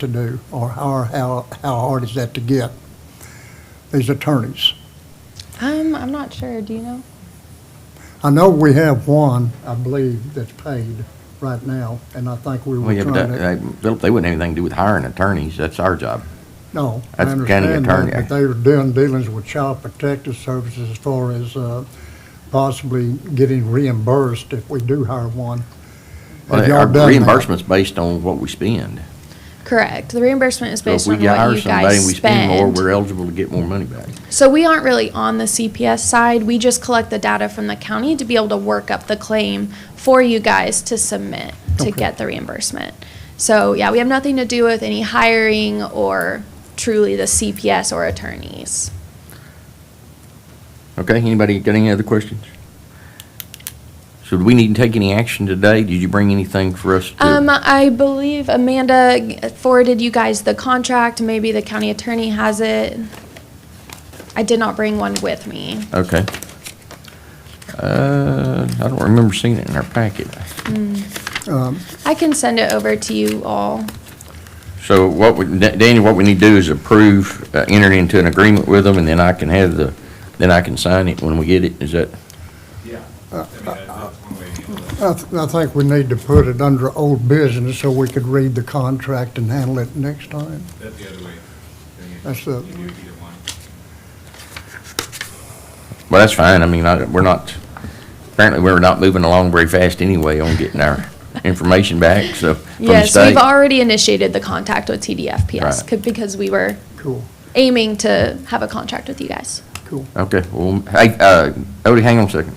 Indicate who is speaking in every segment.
Speaker 1: to do, or how, how, how hard is that to get, these attorneys?
Speaker 2: Um, I'm not sure. Do you know?
Speaker 1: I know we have one, I believe, that's paid right now, and I think we
Speaker 3: Well,
Speaker 1: were
Speaker 3: yeah, but
Speaker 1: trying
Speaker 3: that-
Speaker 1: to.
Speaker 3: that- Philip, they wouldn't have anything to do with hiring attorneys. That's our job.
Speaker 1: No, I
Speaker 3: that's the county
Speaker 1: understand
Speaker 3: attorney.
Speaker 1: that, but they were doing dealings with Child Protective Services as far as, uh, possibly getting reimbursed if we do hire one.
Speaker 3: Well,
Speaker 1: Have y'all
Speaker 3: Our
Speaker 1: done that?
Speaker 3: reimbursement's based on what we spend.
Speaker 2: Correct. The reimbursement is
Speaker 3: So if
Speaker 2: based
Speaker 3: we
Speaker 2: on what
Speaker 3: hire
Speaker 2: you
Speaker 3: somebody,
Speaker 2: guys
Speaker 3: and we spend more,
Speaker 2: spend.
Speaker 3: we're eligible to get more money back.
Speaker 2: so we aren't really on the CPS side. We just collect the data from the county to be able to work up the claim for you guys to submit to
Speaker 1: Okay.
Speaker 2: get the reimbursement. So yeah, we have nothing to do with any hiring or truly the CPS or attorneys.
Speaker 3: Okay, anybody got any other questions? Should we need to take any action today? Did you bring anything for us to?
Speaker 2: Um, I believe Amanda g- forwarded you guys the contract. Maybe the county attorney has it. I did not bring one with me.
Speaker 3: Okay. Uh, I don't remember seeing it in our packet.
Speaker 1: Um,
Speaker 2: I can send it over to you all.
Speaker 3: So what, we- Da- Daniel, what we need to do is approve, uh, enter into an agreement with them, and then I can have the, then I can sign it when we get it. Is that?
Speaker 4: Yeah.
Speaker 1: Uh,
Speaker 4: I mean, that- that's one way to handle it.
Speaker 1: I, th- I think we need to put it under old business so we could read the contract and handle it next time.
Speaker 4: That's the other way.
Speaker 1: That's the-
Speaker 4: You do either one.
Speaker 3: Well, that's fine. I mean, I, we're not, apparently we're not moving along very fast anyway on getting our information back, so. from the
Speaker 2: Yes, we've
Speaker 3: state.
Speaker 2: already initiated the contact with TDFPS
Speaker 3: Right.
Speaker 2: c- because we were
Speaker 1: Cool,
Speaker 2: aiming to have a contract with you guys.
Speaker 1: cool.
Speaker 3: Okay, well, hey, uh, Odie, hang on a second.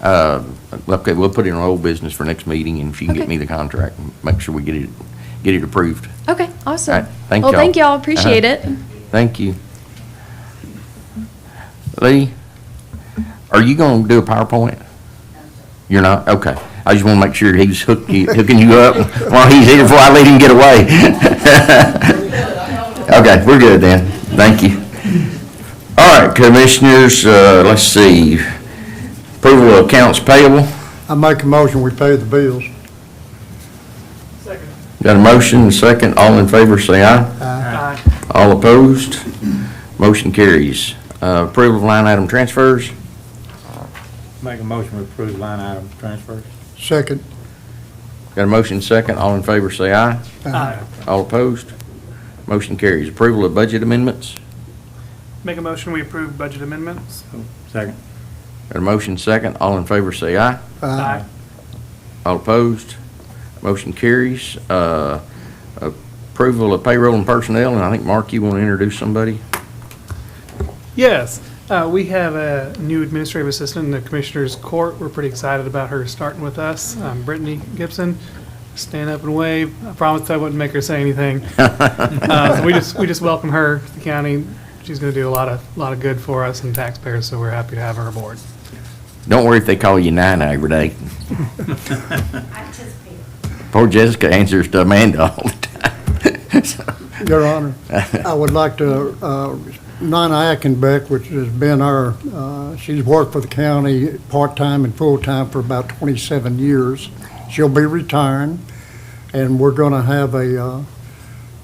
Speaker 3: Uh, okay, we'll put it in old business for next meeting, and if you can get
Speaker 2: Okay.
Speaker 3: me the contract, make sure we get it, get it approved.
Speaker 2: Okay,
Speaker 3: All
Speaker 2: awesome.
Speaker 3: right, thank
Speaker 2: Well,
Speaker 3: y'all. Uh-huh.
Speaker 2: thank y'all, appreciate it.
Speaker 3: Thank you. Lee, are you gonna do a PowerPoint? You're not? Okay. I just wanna make sure he's hook- hooking you up while he's here before I let him get away. Okay, we're good then. Thank you. All right, commissioners, uh, let's see. Approval of accounts payable.
Speaker 1: I make a motion, we pay the bills.
Speaker 3: Got a motion, and a second. All in favor, say aye. All opposed? Motion carries. Uh, Approval of line item transfers.
Speaker 5: Make a motion to approve line item transfers.
Speaker 1: Second,
Speaker 3: Got a motion second, all in favor say aye.
Speaker 6: Uh-huh. Uh,
Speaker 3: All opposed? Motion carries. Approval of budget amendments.
Speaker 6: Make a motion, we approve budget amendments.
Speaker 5: Second.
Speaker 3: Got a motion second, all in favor say aye.
Speaker 6: Aye.
Speaker 3: All opposed? Motion carries. Uh, Approval of payroll and personnel, and I think, Mark, you want to introduce somebody?
Speaker 6: Yes, uh, we have a new administrative assistant in the Commissioner's Court. We're pretty excited about her starting with us. Um, Brittany Gibson, stand up and wave. I promised I wouldn't make her say anything. Uh, so We just, we just welcome her to the county. She's going to do a lot of, lot of good for us and taxpayers, so we're happy to have her aboard.
Speaker 3: Don't worry if they call you Nina every day. Poor Jessica answers to Amanda all the time. So-
Speaker 1: Your Honor, I would like to, uh, Nina Ackenbeck, which has been our, uh, she's worked for the county part-time and full-time for about 27 years. She'll be retiring, and we're going to have a, uh,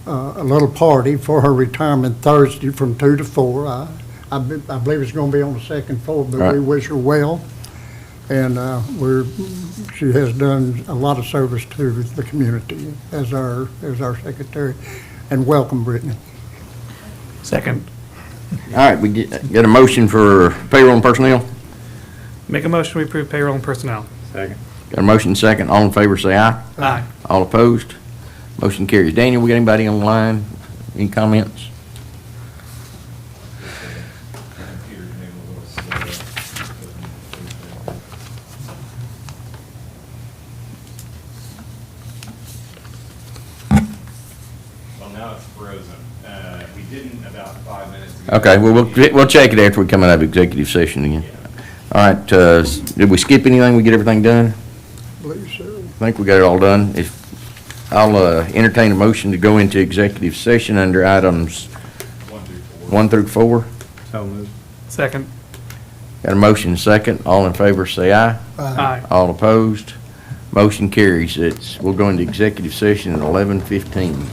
Speaker 1: uh, a little party for her retirement Thursday from 2 to 4. I I be- I believe it's going to be on the second floor, but we
Speaker 3: Right.
Speaker 1: wish her well. And uh, we're, she has done a lot of service to the community as our, as our secretary. And welcome, Brittany.
Speaker 6: Second.
Speaker 3: All right, we get get a motion for payroll and personnel?
Speaker 6: Make a motion, we approve payroll and personnel.
Speaker 5: Second.
Speaker 3: Got a motion second, all in favor say aye.
Speaker 6: Aye.
Speaker 3: All opposed? Motion carries. Daniel, we got anybody online? Any comments?
Speaker 4: The computer's maybe a little slow. Doesn't- doesn't- Well, now it's frozen. Uh, We didn't about five minutes ago.
Speaker 3: Okay, well, we'll, we'll check it after we come out of executive session again. All right, uh, did we skip anything? We get everything done?
Speaker 1: Believe so.
Speaker 3: I think we got it all done. If, I'll, uh, entertain a motion to go into executive session under items
Speaker 4: One through four.
Speaker 3: one through four.
Speaker 5: So moved.
Speaker 6: Second.
Speaker 3: Got a motion second, all in favor say aye.
Speaker 6: Aye.
Speaker 3: All opposed? Motion carries. It's, we'll go into executive session at eleven fifteen.